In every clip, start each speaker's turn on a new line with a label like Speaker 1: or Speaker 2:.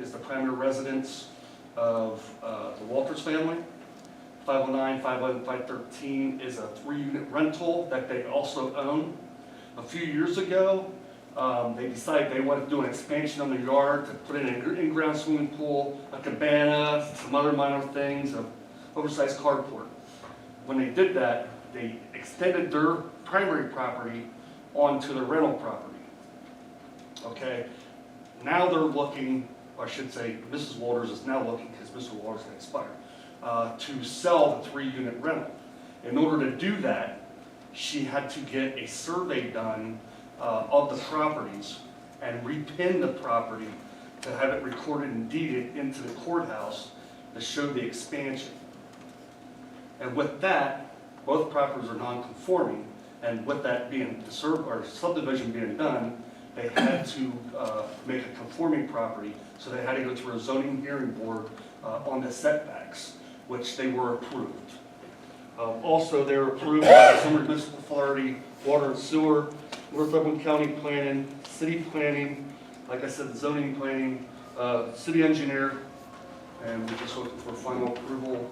Speaker 1: is the primary residence of uh, the Walters family. 509, 511, 513 is a three-unit rental that they also own. A few years ago, um, they decided they wanted to do an expansion on their yard to put in an in-ground swimming pool, a cabana, some other minor things, an oversized carport. When they did that, they extended their primary property onto the rental property. Okay, now they're looking, or I should say, Mrs. Walters is now looking, because Mr. Walters can expire, uh, to sell the three-unit rental. In order to do that, she had to get a survey done uh, of the properties and repin the property to have it recorded and deeded into the courthouse to show the expansion. And with that, both properties are non-conforming, and with that being, the sur- or subdivision being done, they had to uh, make a conforming property, so they had to go to a zoning hearing board uh, on the setbacks, which they were approved. Um, Also, they were approved by the Summer Municipal Authority, Water and Sewer, North Oakland County Planning, City Planning, like I said, zoning planning, uh, city engineer, and we're just looking for final approval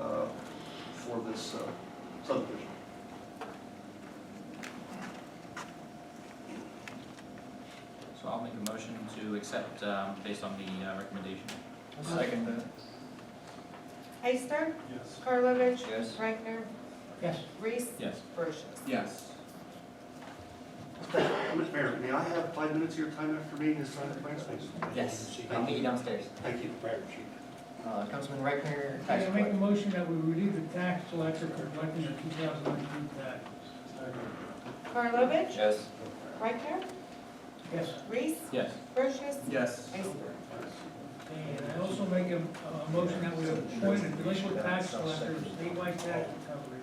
Speaker 1: uh, for this uh, subdivision.
Speaker 2: So I'll make a motion to accept, um, based on the uh, recommendation.
Speaker 3: Second that.
Speaker 4: Heister,
Speaker 1: Yes.
Speaker 4: Karlovic,
Speaker 2: Yes.
Speaker 4: Reichner,
Speaker 3: Yes.
Speaker 4: Reese,
Speaker 2: Yes.
Speaker 4: Brochus.
Speaker 2: Yes.
Speaker 1: Mr. Mayor, may I have five minutes of your time after meeting to sign the plans, please?
Speaker 5: Yes, I'll
Speaker 1: Thank
Speaker 5: meet you
Speaker 1: you.
Speaker 5: downstairs.
Speaker 1: Thank you.
Speaker 5: Uh, Councilman Reichner,
Speaker 3: I
Speaker 5: tax
Speaker 3: make a
Speaker 5: collector.
Speaker 3: motion that we relieve the tax collector for collecting their 2019 tax.
Speaker 4: Karlovic,
Speaker 5: Yes.
Speaker 4: Reichner,
Speaker 3: Yes.
Speaker 4: Reese,
Speaker 2: Yes.
Speaker 4: Brochus,
Speaker 2: Yes.
Speaker 4: Heister.
Speaker 3: And I also make a, a motion that we appoint a delinquent tax collector to statewide tax recovery.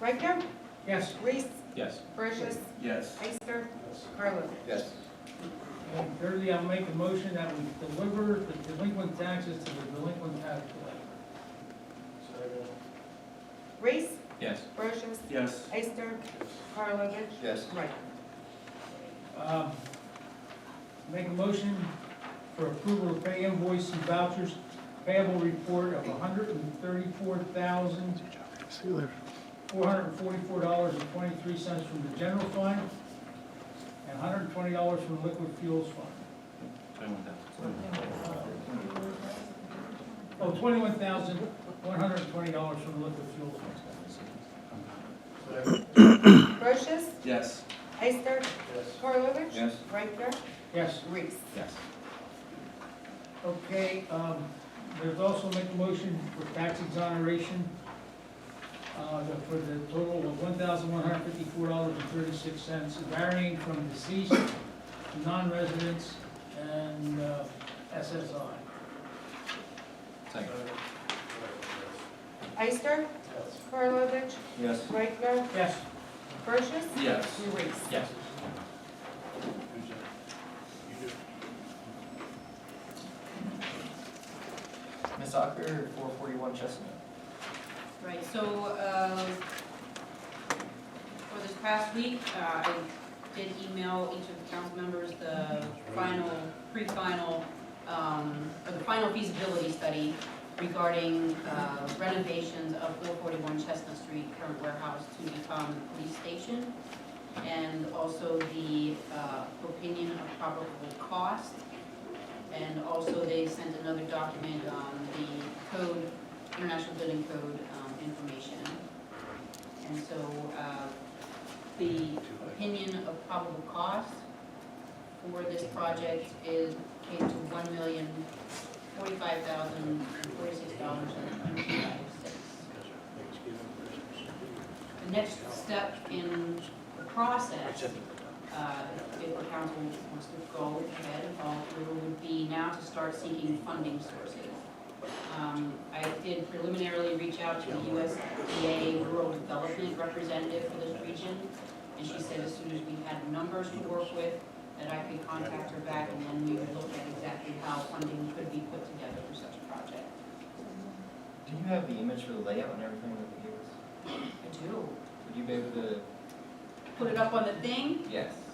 Speaker 4: Reichner,
Speaker 3: Yes.
Speaker 4: Reese,
Speaker 2: Yes.
Speaker 4: Brochus,
Speaker 2: Yes.
Speaker 4: Heister, Karlovic.
Speaker 5: Yes.
Speaker 3: And thirdly, I'll make a motion that we deliver the delinquent taxes to the delinquent tax collector.
Speaker 4: Reese,
Speaker 2: Yes.
Speaker 4: Brochus,
Speaker 2: Yes.
Speaker 4: Heister, Karlovic,
Speaker 5: Yes.
Speaker 4: Reichner.
Speaker 3: Um, Make a motion for approval of pay invoice and vouchers payable report of $134,444.23 from the general fund and $120 from the liquid fuels fund.
Speaker 2: Twenty-one thousand.
Speaker 3: Oh, $21,120 from the liquid fuels fund.
Speaker 4: Brochus,
Speaker 2: Yes.
Speaker 4: Heister, Karlovic.
Speaker 2: Yes.
Speaker 4: Reichner,
Speaker 3: Yes.
Speaker 4: Reese.
Speaker 2: Yes.
Speaker 3: Okay, um, there's also make a motion for tax exoneration, uh, for the total of one thousand one hundred fifty-four dollars and thirty-six cents, varying from deceased, non-residents, and, uh, SSI.
Speaker 2: Second.
Speaker 4: Heister, Karlovic,
Speaker 2: Yes.
Speaker 4: Reichner,
Speaker 3: Yes,
Speaker 4: Brochus,
Speaker 2: Yes.
Speaker 4: Reese.
Speaker 2: Yes.
Speaker 5: Ms. Ocker, four forty-one Chestnut.
Speaker 6: Right, so, um, for this past week, uh, I did email each of the council members the final, pre-final, um, or the final feasibility study regarding uh, renovations of four forty-one Chestnut Street, current warehouse to become the police station, and also the uh, opinion of probable cost. And also, they sent another document on the code International Building Code um, information. And so uh, the opinion of probable cost for this project is, came to one million forty-five thousand forty-six dollars and twenty-five cents. The next step in the process, uh, if the council wants to go ahead and follow through, would be now to start seeking funding sources. Um, I did preliminarily reach out to the USDA Rural Development Representative for this region, and she said as soon as we had numbers to work with, that I could contact her back, and then we would look at exactly how funding could be put together for such a project.
Speaker 5: Do you have the image for the layout and everything that you gave us?
Speaker 6: I do.
Speaker 5: Would you be able to?
Speaker 6: Put it up on the thing,
Speaker 5: Yes.